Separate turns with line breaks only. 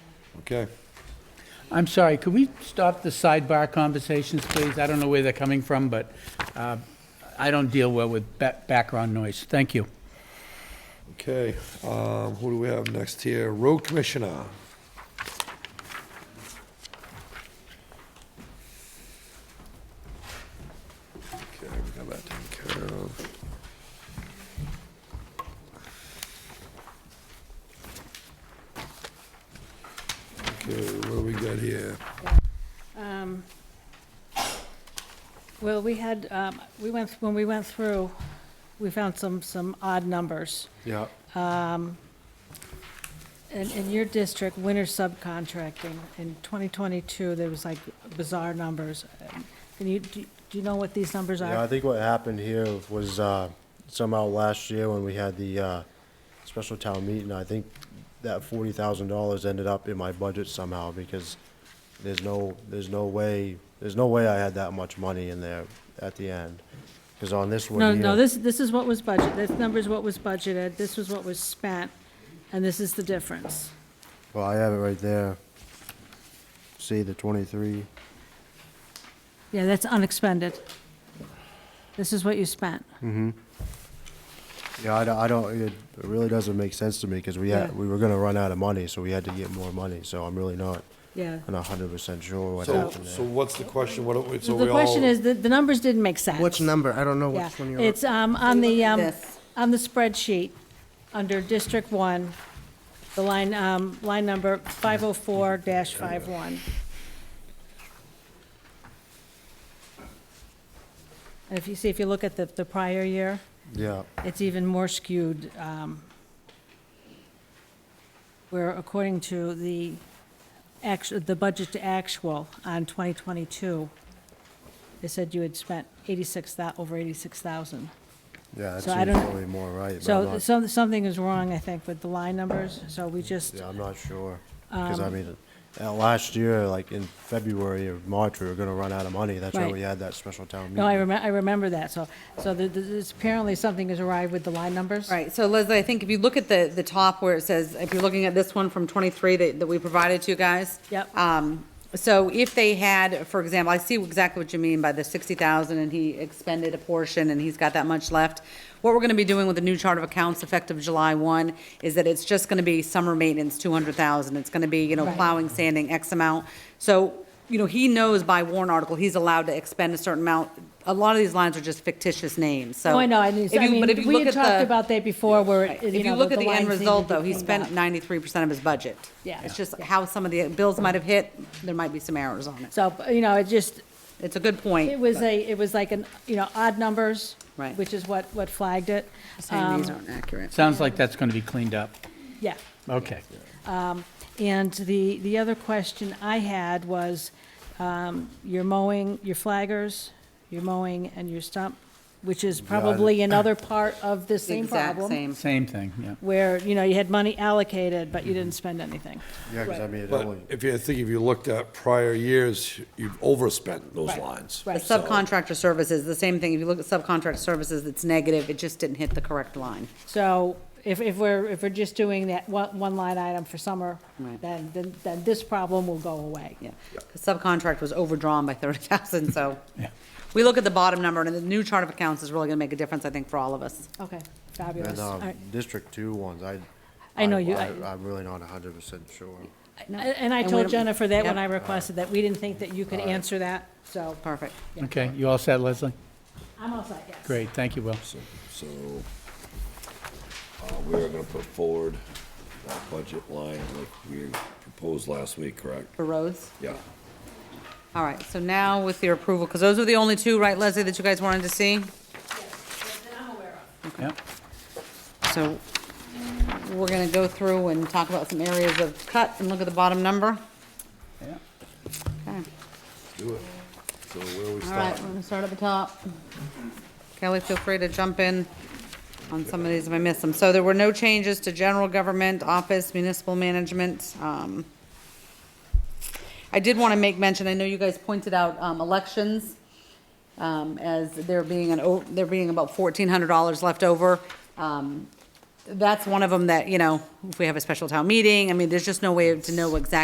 Okay.
I'm sorry, could we stop the sidebar conversations, please? I don't know where they're coming from, but uh, I don't deal well with ba- background noise. Thank you.
Okay, um, who do we have next here? Road Commissioner. Okay, we got that taken care of. Okay, what do we got here?
Um, Well, we had, um, we went, when we went through, we found some, some odd numbers.
Yeah.
In, in your district, winter subcontracting, in 2022, there was like bizarre numbers. Can you, do do you know what these numbers
Yeah, I
are?
think what happened here was uh, somehow last year when we had the uh, special town meeting, I think that forty thousand dollars ended up in my budget somehow because there's no, there's no way, there's no way I had that much money in there at the end. Because on this one
No,
here.
no, this, this is what was budgeted, this number's what was budgeted, this was what was spent, and this is the difference.
Well, I have it right there. See the twenty-three.
Yeah, that's unexpended. This is what you spent.
Yeah, I don't, I don't, it really doesn't make sense to me because we
Yeah.
had, we were gonna run out of money, so we had to get more money, so I'm really not,
Yeah.
I'm not hundred percent sure what
So,
happened there.
so what's the question? What, do we- so
So
we all?
the question is, the, the numbers didn't make sense.
Which number? I don't know
Yeah,
which one you're.
it's um, on the, um,
This.
on the spreadsheet, under District One, the line, um, line number five oh four dash five one. And if you see, if you look at the, the prior year,
Yeah,
it's even more skewed, um, where according to the actu, the budget to actual on twenty twenty-two, they said you had spent eighty-six thou, over eighty-six thousand.
yeah, that
So I
seems
don't-
probably more right, but I'm
So
not,
some, something is wrong, I think, with the line numbers, so we just,
yeah, I'm not sure. Because
Um,
I mean, uh, last year, like in February or March, we were gonna run out of money, that's why
Right.
we had that special town meeting.
no, I remember, I remember that, so, so the- the- this- apparently something is awry with the line numbers.
Right, so Leslie, I think if you look at the, the top where it says, if you're looking at this one from 23 that, that we provided to you guys.
Yep.
Um, so if they had, for example, I see exactly what you mean by the 60,000 and he expended a portion and he's got that much left. What we're gonna be doing with the new chart of accounts effective July 1 is that it's just gonna be summer maintenance, 200,000. It's gonna be, you know,
Right.
plowing, sanding, X amount. So you know, he knows by warrant article, he's allowed to expend a certain amount. A lot of these lines are just fictitious names, so.
Oh, I know, I
if
mean,
you-
I
but if
mean,
you
we
look
had
at
talked
the-
about that before, where, it-
If
you
you
know,
look
the
at the
lines
end
needed
result,
to
though, he
cleaned up.
spent ninety-three percent of his budget.
Yeah.
It's just how some of the bills might have hit, there might be some errors on it.
So, you know, it just,
It's a good
It
point.
was a, it was like an, you know, odd numbers.
Right.
Which is what, what flagged it.
Saying these
Um,
aren't accurate.
Sounds like that's going to be cleaned up.
Yeah.
Okay.
And the, the other question I had was, um, your mowing, your flaggers, your mowing and your stump, which is probably another part of the same
Exact
problem.
same.
Same thing, yeah.
Where, you know, you had money allocated, but you
Mm-hmm.
didn't spend anything.
Yeah, because I mean, it
But
only,
if you, I think if you looked at prior years, you've overspent those
Right,
lines.
The
right.
So-
subcontractor services, the same thing. If you look at subcontract services, it's negative. It just didn't hit the correct line.
So if, if we're, if we're just doing that one, one line item for summer,
Right.
then, then, then this problem will go away.
Yeah. The subcontract was overdrawn by thirty thousand, so.
Yeah.
We look at the bottom number, and the new chart of accounts is really gonna make a difference, I think, for all of us.
Okay, fabulous.
and,
All
uh,
right.
District Two ones, I.
I know you- I-
I'm really not hundred percent sure.
And- And I
And we
told
don't-
Jennifer that when
Yep.
I requested that, we didn't think that you could answer that, so
Perfect.
Okay, you all set, Leslie?
I'm all set, yes.
Great, thank you, Will.
So, uh, we are gonna put forward that budget line like we proposed last week, correct?
For roads?
Yeah.
All right, so now with your approval, because those were the only two, right, Leslie, that you guys wanted to see?
Yep.
So we're going to go through and talk about some areas of cut and look at the bottom number.
Yeah.
Okay.
Do it. So where are we
All right, we're
starting?
going to start at the top. Kelly, feel free to jump in on some of these if I miss them. So there were no changes to general government, office, municipal management. um, I did want to make mention, I know you guys pointed out um, elections um, as there being an, o- there being about $1,400 left over. Um, That's one of them that, you know, if we have a special town meeting, I mean, there's just no way to know exactly